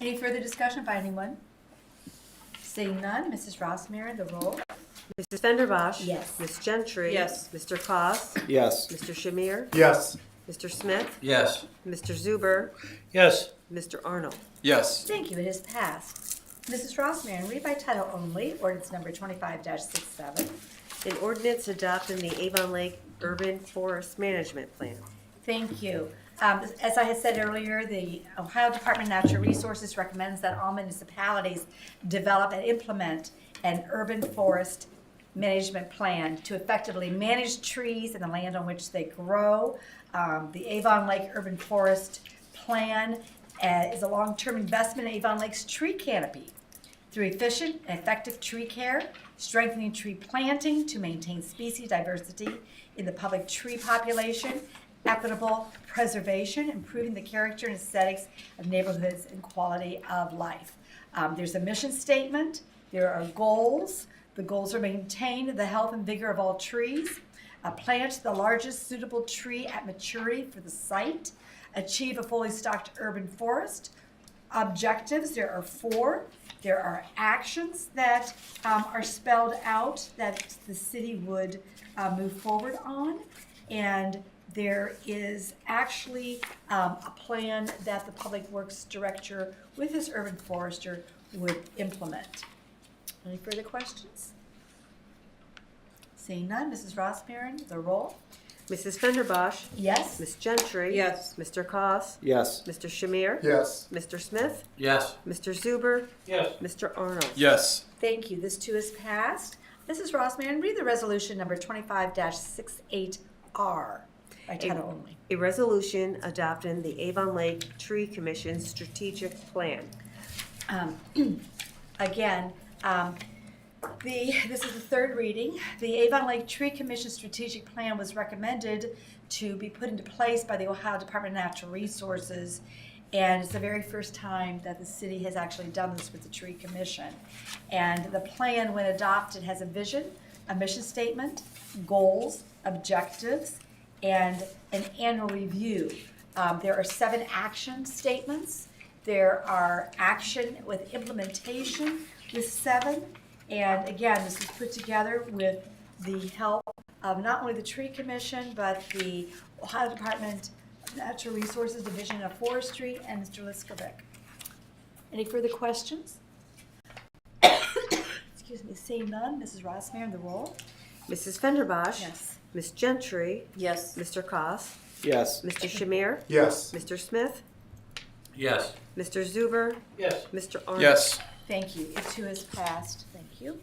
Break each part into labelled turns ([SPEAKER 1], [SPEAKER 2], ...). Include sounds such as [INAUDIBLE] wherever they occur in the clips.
[SPEAKER 1] Any further discussion by anyone? Seeing none, Mrs. Rossmarin, the roll.
[SPEAKER 2] Mrs. Fenderbosh?
[SPEAKER 1] Yes.
[SPEAKER 2] Ms. Gentry?
[SPEAKER 3] Yes.
[SPEAKER 2] Mr. Koss,
[SPEAKER 4] Yes.
[SPEAKER 2] Mr. Shamir?
[SPEAKER 5] Yes.
[SPEAKER 2] Mr. Smith?
[SPEAKER 4] Yes.
[SPEAKER 2] Mr. Zuber?
[SPEAKER 5] Yes.
[SPEAKER 2] Mr. Arnold?
[SPEAKER 4] Yes.
[SPEAKER 1] Thank you, it is passed. Mrs. Rossmarin, read by title only, ordinance number 25-67.
[SPEAKER 2] An ordinance adopting the Avon Lake Urban Forest Management Plan.
[SPEAKER 1] Thank you. Um, As I had said earlier, the Ohio Department of Natural Resources recommends that all municipalities develop and implement an urban forest management plan to effectively manage trees and the land on which they grow. Um, The Avon Lake Urban Forest Plan uh, is a long-term investment in Avon Lake's tree canopy through efficient and effective tree care, strengthening tree planting to maintain species diversity in the public tree population, equitable preservation, improving the character and aesthetics of neighborhoods and quality of life. Um, there's a mission statement, there are goals. The goals are maintain the health and vigor of all trees, uh, plant the largest suitable tree at maturity for the site, achieve a fully stocked urban forest, objectives. There are four. There are actions that um, are spelled out that the city would uh, move forward on. And there is actually um, a plan that the Public Works Director with his urban forester would implement. Any further questions? Seeing none, Mrs. Rossmarin, the roll.
[SPEAKER 2] Mrs. Fenderbosh?
[SPEAKER 1] Yes?
[SPEAKER 2] Ms. Gentry?
[SPEAKER 3] Yes.
[SPEAKER 2] Mr. Koss,
[SPEAKER 4] Yes.
[SPEAKER 2] Mr. Shamir?
[SPEAKER 5] Yes.
[SPEAKER 2] Mr. Smith?
[SPEAKER 4] Yes.
[SPEAKER 2] Mr. Zuber?
[SPEAKER 5] Yes.
[SPEAKER 2] Mr. Arnold?
[SPEAKER 4] Yes.
[SPEAKER 1] Thank you. This too is passed. Mrs. Rossmarin, read the resolution number twenty-five six eight R by title only.
[SPEAKER 2] A resolution adopting the Avon Lake Tree Commission Strategic Plan.
[SPEAKER 1] Um, Again, um, the, this is the third reading. The Avon Lake Tree Commission Strategic Plan was recommended to be put into place by the Ohio Department of Natural Resources. And it's the very first time that the city has actually done this with the Tree Commission. And the plan, when adopted, has a vision, a mission statement, goals, objectives, and an annual review. Um, there are seven action statements. There are action with implementation with seven. And again, this is put together with the help of not only the Tree Commission, but the Ohio Department of Natural Resources Division of Forestry and Mr. Liskovic. Any further questions? [COUGHS] Excuse me, seeing none, Mrs. Rossmarin, the roll?
[SPEAKER 2] Mrs. Fenderbosh?
[SPEAKER 1] Yes.
[SPEAKER 2] Ms. Gentry?
[SPEAKER 3] Yes.
[SPEAKER 2] Mr. Koss,
[SPEAKER 4] Yes.
[SPEAKER 2] Mr. Shamir?
[SPEAKER 5] Yes.
[SPEAKER 2] Mr. Smith?
[SPEAKER 4] Yes.
[SPEAKER 2] Mr. Zuber?
[SPEAKER 5] Yes.
[SPEAKER 2] Mr. Arnold?
[SPEAKER 4] Yes.
[SPEAKER 1] Thank you. It too is passed. Thank you.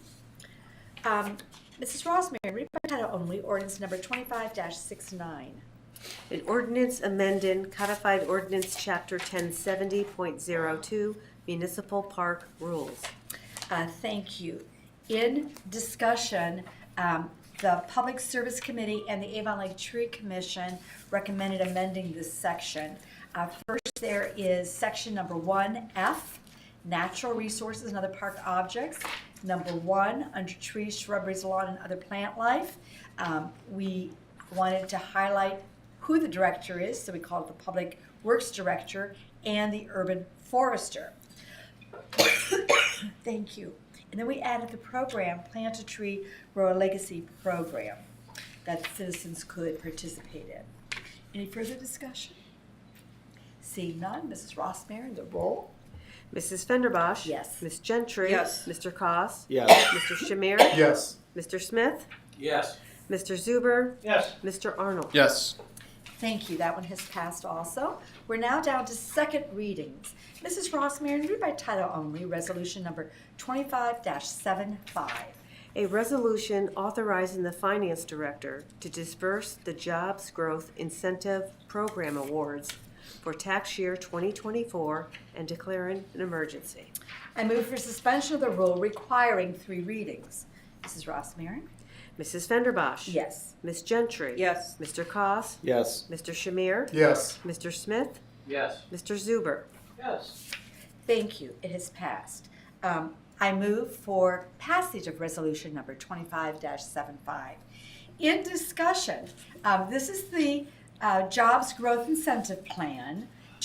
[SPEAKER 1] Um, Mrs. Rossmarin, read by title only, ordinance number twenty-five 69
[SPEAKER 2] An ordinance amending codified ordinance chapter 1070.02 municipal park rules.
[SPEAKER 1] Uh, Thank you. In discussion, um, the Public Service Committee and the Avon Lake Tree Commission recommended amending this section. Uh, First, there is section number one F, natural resources and other park objects. Number one, under trees, shrubberies, lawn, and other plant life. Um, We wanted to highlight who the director is, so we called it the Public Works Director and the Urban Forester. Thank you. And then we added the program, Plant a Tree, Grow a Legacy program that citizens could participate in. Any further discussion? Seeing none, Mrs. Rossmarin, the roll.
[SPEAKER 2] Mrs. Fenderbosh?
[SPEAKER 1] Yes.
[SPEAKER 2] Ms. Gentry?
[SPEAKER 3] Yes.
[SPEAKER 2] Mr. Koss,
[SPEAKER 4] Yes.
[SPEAKER 2] Mr. Shamir?
[SPEAKER 5] Yes.
[SPEAKER 2] Mr. Smith?
[SPEAKER 4] Yes.
[SPEAKER 2] Mr. Zuber?
[SPEAKER 5] Yes.
[SPEAKER 2] Mr. Arnold?
[SPEAKER 4] Yes.
[SPEAKER 1] Thank you, that one has passed also. We're now down to second readings. Mrs. Rossmarin, read by title only, resolution number twenty-five 75
[SPEAKER 2] A resolution authorizing the finance director to disperse the Jobs Growth Incentive Program awards for tax year 2024 and declaring an emergency.
[SPEAKER 1] I move for suspension of the rule requiring three readings. Mrs. Rossmarin?
[SPEAKER 2] Mrs. Fenderbosh?
[SPEAKER 1] Yes.
[SPEAKER 2] Ms. Gentry?
[SPEAKER 3] Yes.
[SPEAKER 2] Mr. Koss,
[SPEAKER 4] Yes.
[SPEAKER 2] Mr. Shamir?
[SPEAKER 5] Yes.
[SPEAKER 2] Mr. Smith?
[SPEAKER 4] Yes.
[SPEAKER 2] Mr. Zuber?
[SPEAKER 5] Yes.
[SPEAKER 1] Thank you. It has passed. Um, I move for passage of resolution number 25-75. In discussion, um, this is the uh, Jobs Growth Incentive Plan.